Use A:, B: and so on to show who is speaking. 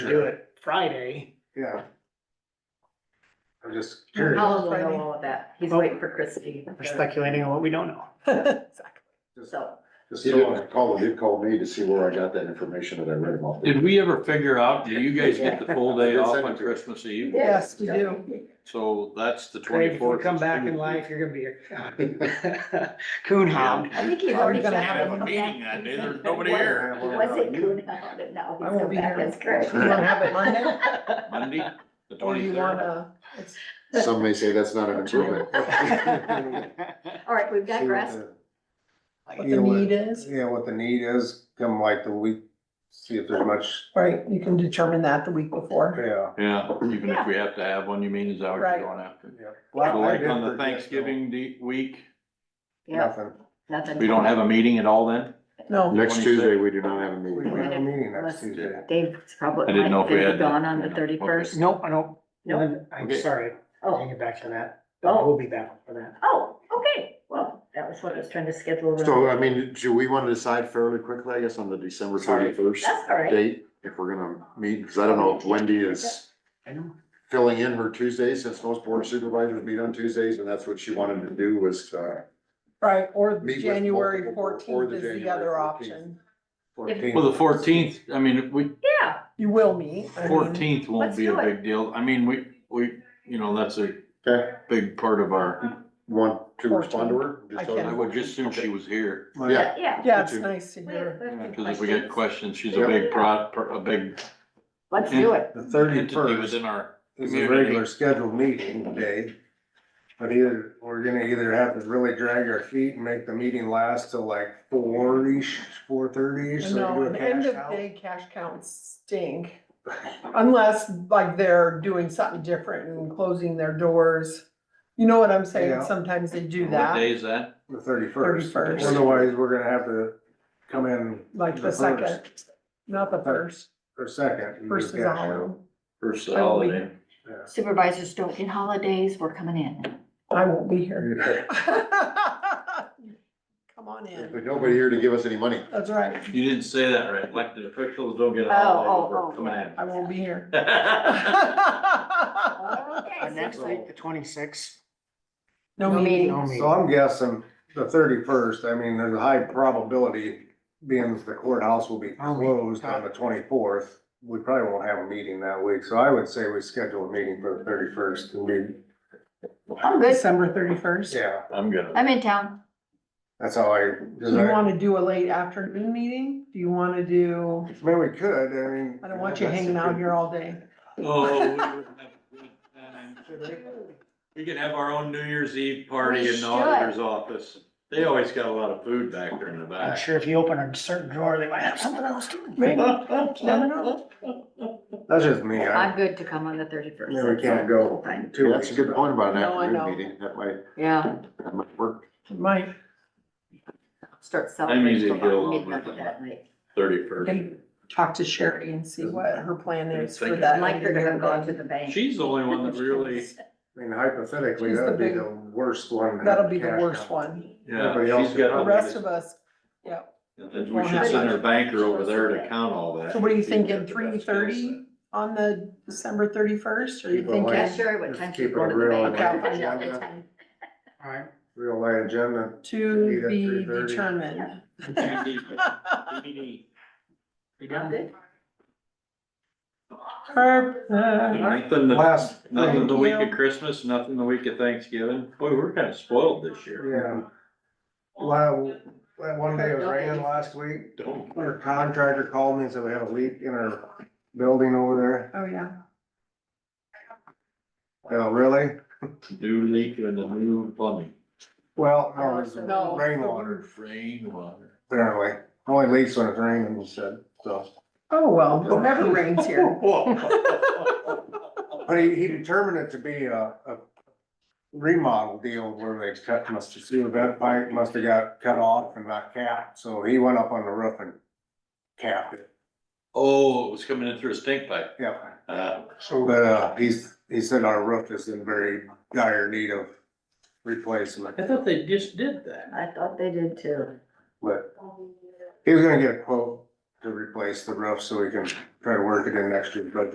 A: do it Friday.
B: Yeah. I'm just
C: How
B: curious,
C: long will we know all of that? He's waiting for Christie.
A: We're speculating on what we don't know.
B: just,
C: So,
B: just someone called, did call me to see where I got that information that I read them off.
D: Did we ever figure out, do you guys get the full day
B: Yeah.
D: off on Christmas Eve?
B: Yes, we do.
D: So that's the
A: Craig, if you
D: twenty-fourth.
A: come back in life, you're gonna be a coon hound.
C: I think he's
D: Probably
C: already.
D: gonna
C: said
D: have a
C: he'll come
D: meeting
C: back.
D: that day. There's nobody here.
C: He was in Coonhound and now he's
E: I won't
C: come
E: be
C: back
E: here.
C: as Christie.
E: You wanna have it Monday?
D: Monday, the
E: Or you
D: twenty-third.
E: wanna, it's,
B: Some may say that's not an improvement.
C: All right, we've got grass.
E: what the need is,
B: Yeah, what the need is, come like the week, see if there's much,
E: right, you can determine that the week before.
B: yeah.
D: Yeah, even if we have to have one, you mean, is that what you're
E: Right.
D: going after?
B: yeah.
D: So
B: I
D: like
B: did
D: on the
B: forget, though.
D: Thanksgiving de- week,
C: Yeah,
B: Nothing.
C: nothing.
D: we don't have a meeting at all then?
E: No,
B: Next Tuesday, we do not have a meeting.
C: We have a
B: meeting
C: next
D: Tuesday.
C: Dave's probably.
D: I didn't know if we
C: might be
D: had that.
C: Gone on the
D: Yeah, okay.
C: thirty-first.
A: Nope, I don't,
C: Nope.
A: no, I'm
D: Okay.
A: sorry, I'll
C: Oh,
A: get back to that.
C: Oh.
A: We'll be back for that.
C: oh, okay. Well, that was what I was trying to schedule.
D: uh,
B: So, I mean, do we want to decide fairly quickly, I guess, on the December
A: Sorry.
B: thirty-first
C: That's all right.
B: date, if we're gonna meet, because I don't know if Wendy is
A: I know.
B: filling in her Tuesdays, since most board supervisors meet on Tuesdays, and that's what she wanted to do was, uh.
E: right, or
B: Meet with
E: January
B: multiple- or
E: fourteenth
B: the
E: is the
B: January
E: other
B: 14th.
E: option.
D: Well, the fourteenth, I mean, we,
C: Yeah,
E: You will meet. I mean,
C: Let's
D: fourteenth won't be a
C: do it.
D: big deal. I mean, we, we, you know, that's a
B: Okay,
D: big part of our,
B: want to respond to her?
E: I
B: Just-
E: can.
D: I would just assume she was here.
B: Yeah,
C: yeah.
E: Yeah, it's
B: Me too.
E: nice to
C: We have-
E: hear.
C: we have
D: Cause if we get questions, she's a
B: Yeah.
D: big pro, pro- a big
C: Let's do it.
B: the
D: entity within our.
B: It's a
D: Community.
B: regular scheduled meeting day. But either, we're gonna either have to really drag our feet and make the meeting last till like four-ish, four-thirty-ish, so
E: No,
B: we do a
E: and end
B: cash
E: of
B: out.
E: day cash counts stink. Unless like they're doing something different and closing their doors. You know what I'm
B: Yeah.
E: saying? Sometimes they do
D: What day
E: that,
D: is that?
B: The thirty-first.
E: 31st.
B: Otherwise, we're gonna have to come in
E: like the
B: the
E: second, not the first.
B: for second. and do
E: First
B: cash
E: is a
B: out.
E: holiday.
D: First
E: I will be-
D: holiday.
B: Yeah.
C: Supervisors don't get holidays. We're coming in.
E: I won't be here.
B: There's
E: Come on in.
B: nobody here to give us any money.
E: That's right.
D: You didn't say that right. Elected officials don't get
C: Oh,
D: a holiday.
C: oh,
D: We're
C: oh.
D: coming in.
E: I won't be here.
A: Uh,
C: Okay.
A: next week, the twenty-sixth.
E: No
C: No meeting.
E: meeting.
A: No
B: So
A: meeting.
B: I'm guessing the thirty-first, I mean, there's a high probability, being that the courthouse will be
A: Oh, we-
B: closed on the twenty-fourth. We probably won't have a meeting that week, so I would say we schedule a meeting for the thirty-first and we,
C: I'm good.
E: December thirty-first.
B: yeah,
D: I'm gonna,
C: I'm in town.
B: that's how I.
E: Do you wanna do a late afternoon meeting? Do you wanna do,
B: I mean, we could, I mean.
E: I don't want you hanging out here all day.
D: oh, we would have a good time. We could have our own New Year's Eve party
C: We
D: in the auditor's office. They always got a lot of food back there in the
A: I'm
D: back.
A: sure if you open a certain drawer, they might have something else too.
E: Maybe.
B: That's just me,
C: I'm
B: I,
C: good to come on the thirty-first.
B: yeah, we can't go two
F: That's a good point about an
E: No, I
F: afternoon
E: know.
F: meeting, that might,
C: Yeah,
F: that might work.
E: Mike,
C: start
D: I'm
C: celebrating
D: easy to get
C: about
D: along with.
C: midnight that night.
D: Thirty-first.
E: can talk to Sherry and see what her plan is for
C: I'd
E: that.
C: like her to have gone to
E: later
C: the bank.
D: She's the only one that really,
B: I mean hypothetically,
E: She's the
B: that'd be
E: big-
B: the worst one.
E: That'll be the
B: Cash
E: worst
B: out.
E: one.
D: yeah,
B: Everybody else
D: she's got.
E: The rest of us, yeah.
D: We should send our banker over there to count all that.
E: So what are you
D: He's got
E: thinking,
D: the best
E: three thirty on the December thirty-first? Are you
B: Keep it light.
C: Yeah,
E: thinking
C: Sherry, what
B: Just
C: time
B: keep
C: she's
B: it
C: going to the
B: real
C: bank.
E: and
C: I know
B: real.
C: the time.
A: All right,
B: Real light agenda.
E: to
B: Eight at
E: be
B: 3:30.
E: determined?
D: skill
A: we
C: I'm
A: done?
C: good.
D: set.
E: Purpose.
D: Nothing the-
B: Last thing.
D: Nothing the week of
E: Yeah.
D: Christmas, nothing the week of Thanksgiving. Boy, we're kinda spoiled this year.
B: Yeah. Well, that one day it was raining last week,
D: Don't.
B: our contractor called me and said we had a leak in our building over
E: Oh, yeah.
B: there. Oh, really?
D: New leak and the new plumbing.
B: Well, no, it was
E: No.
B: rainwater,
D: Rainwater.
B: apparently. Only leaks when it's raining, he said, so.
E: Oh, well, it never rains here.
B: But he, he determined it to be a, a remodel deal where they cut, must have, sewer vent pipe must have got cut off and not capped, so he went up on the roof and capped it.
D: Oh, it was coming in through a stink pipe.
B: Yeah.
D: Uh,
B: So, But, uh, he's, he said our roof is in very dire need of replacement,
D: I thought they just did that.
C: I thought they did too.
B: but he was gonna get a quote to replace the roof so we can try to work it in next year's budget.